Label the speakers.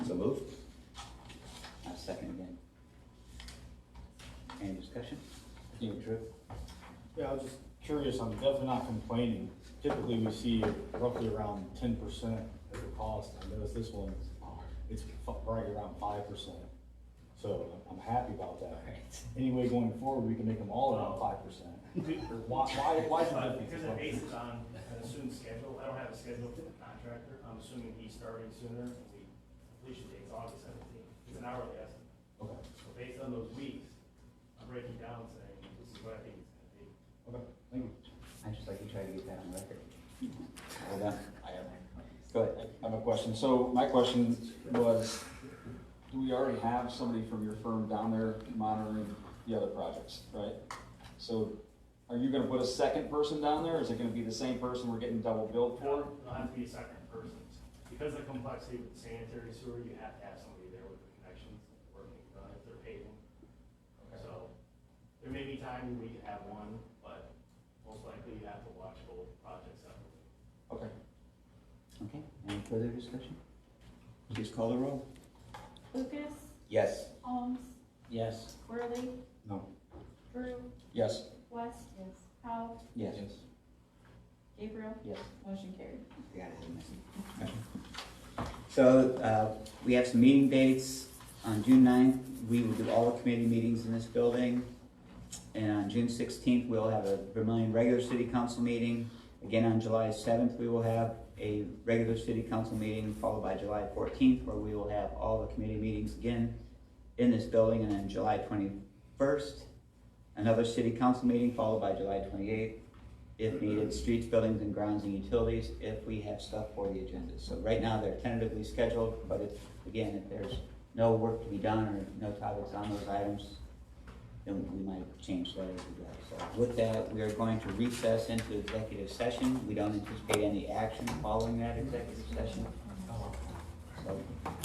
Speaker 1: moved. I second again. Any discussion? You true?
Speaker 2: Yeah, I was just curious, I'm definitely not complaining. Typically, we see roughly around ten percent of the cost. I noticed this one, uh, it's f- right around five percent. So I'm happy about that. Anyway, going forward, we can make them all around five percent. Why, why, why is
Speaker 3: But
Speaker 2: the
Speaker 3: Because it
Speaker 2: difference?
Speaker 3: bases on an assumed schedule, I don't have a schedule for the contractor, I'm assuming he's starting sooner, and we, completion date's August seventeenth, it's an hourly estimate.
Speaker 2: Okay,
Speaker 3: So based on those weeks, I'm breaking down and saying, this is what I think it's gonna be.
Speaker 2: okay, thank you.
Speaker 1: I just like to try to get that on record. Hold on.
Speaker 2: I have-
Speaker 1: Go ahead.
Speaker 2: I have a question. So my question was, do we already have somebody from your firm down there monitoring the other projects, right? So are you gonna put a second person down there? Is it gonna be the same person we're getting double billed for?
Speaker 3: It'll have to be a second person, because of the complexity with sanitary sewer, you have to have somebody there with the connections, working, uh, if they're paving. So, there may be times we have one, but most likely you have to watch both projects separately.
Speaker 2: Okay.
Speaker 1: Okay, any further discussion?
Speaker 4: Please call the roll.
Speaker 5: Lucas,
Speaker 1: Yes.
Speaker 5: Holmes,
Speaker 1: Yes.
Speaker 5: Worley,
Speaker 2: No.
Speaker 5: Drew,
Speaker 2: Yes.
Speaker 5: West. Yes. Howe,
Speaker 1: Yes.
Speaker 5: Gabriel.
Speaker 1: Yes.
Speaker 5: Motion carried.
Speaker 1: I got it, didn't I?
Speaker 4: So, uh, we have some meeting dates. On June 9th, we will do all the committee meetings in this building. And on June sixteenth, we'll have a Vermillion regular city council meeting. Again, on July seventh, we will have a regular city council meeting, followed by July fourteenth, where we will have all the committee meetings again in this building, and then July twenty-first, another city council meeting, followed by July twenty-eighth. If needed, streets, buildings, and grounds and utilities, if we have stuff for the agenda. So right now, they're tentatively scheduled, but if, again, if there's no work to be done or no topics on those items, then we might change that as we go. So with that, we are going to recess into executive session. We don't anticipate any action following that executive session. So